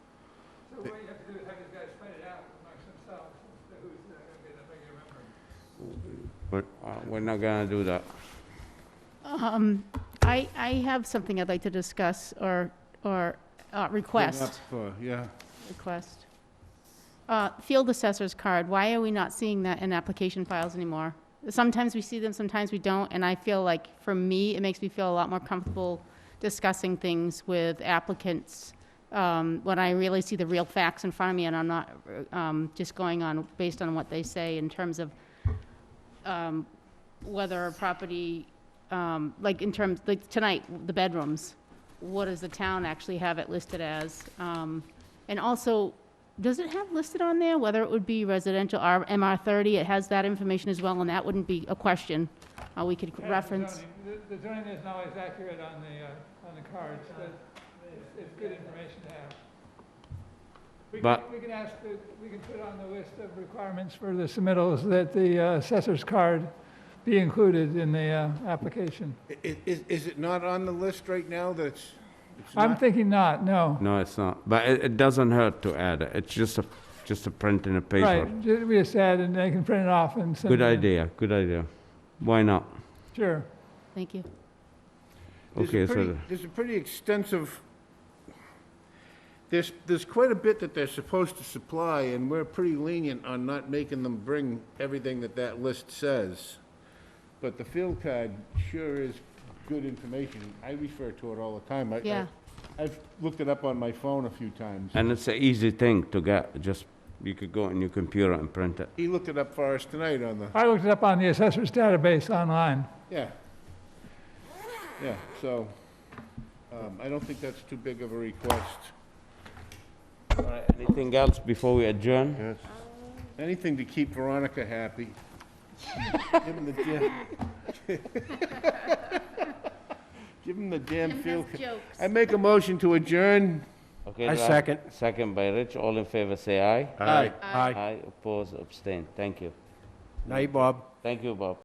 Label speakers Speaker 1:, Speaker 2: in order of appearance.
Speaker 1: just gotta spread it out amongst themselves, who's gonna be the bigger member.
Speaker 2: But uh, we're not gonna do that.
Speaker 3: Um, I, I have something I'd like to discuss or, or uh, request,
Speaker 4: Yeah,
Speaker 3: request. Uh, Field assessor's card, why are we not seeing that in application files anymore? Sometimes we see them, sometimes we don't, and I feel like, for me, it makes me feel a lot more comfortable discussing things with applicants um, when I really see the real facts in front of me and I'm not um, just going on based on what they say in terms of um, whether a property, um, like in terms, like tonight, the bedrooms, what does the town actually have it listed as? Um, And also, does it have listed on there whether it would be residential or MR30? It has that information as well, and that wouldn't be a question. Uh, We could
Speaker 1: Yeah, the
Speaker 3: reference,
Speaker 1: zoning- the- The zoning isn't always accurate on the, uh, on the cards, but it's- it's good information to have. We
Speaker 2: But-
Speaker 1: can, we can ask, the- we can put on the list of requirements for the submittals that the uh, assessor's card be included in the uh, application.
Speaker 4: I- is, is it not on the list right now that's? it's
Speaker 1: I'm
Speaker 4: not?
Speaker 1: thinking not, no.
Speaker 2: No, it's not. But it, it doesn't hurt to add it. It's just a, just a print in a paper.
Speaker 1: Right, ju- we just add and they can print it off and send it.
Speaker 2: Good
Speaker 1: in.
Speaker 2: idea, good idea. Why not?
Speaker 1: Sure.
Speaker 3: thank you.
Speaker 4: There's a
Speaker 2: Okay, so,
Speaker 4: pretty-
Speaker 2: the-
Speaker 4: There's a pretty extensive, there's, there's quite a bit that they're supposed to supply, and we're pretty lenient on not making them bring everything that that list says. But the field card sure is good information. I refer to it all the time. I- I-
Speaker 3: Yeah.
Speaker 4: I've looked it up on my phone a few times.
Speaker 2: and it's an easy thing to get, just, you could go on your computer and print it.
Speaker 4: He looked it up for us tonight on the,
Speaker 1: I looked it up on the assessor's database online.
Speaker 4: yeah. Yeah, so, um, I don't think that's too big of a request.
Speaker 2: All right, Anything else before we adjourn?
Speaker 4: Yes. Anything to keep Veronica happy. Give him the damn... Give him the damn field... ca- I make a motion to adjourn.
Speaker 2: Okay.
Speaker 5: I
Speaker 2: do
Speaker 5: second.
Speaker 2: Second by Rich, all in favor, say aye.
Speaker 5: Aye.
Speaker 2: Aye, oppose, abstain, thank you.
Speaker 5: Night, Bob.
Speaker 2: Thank you, Bob.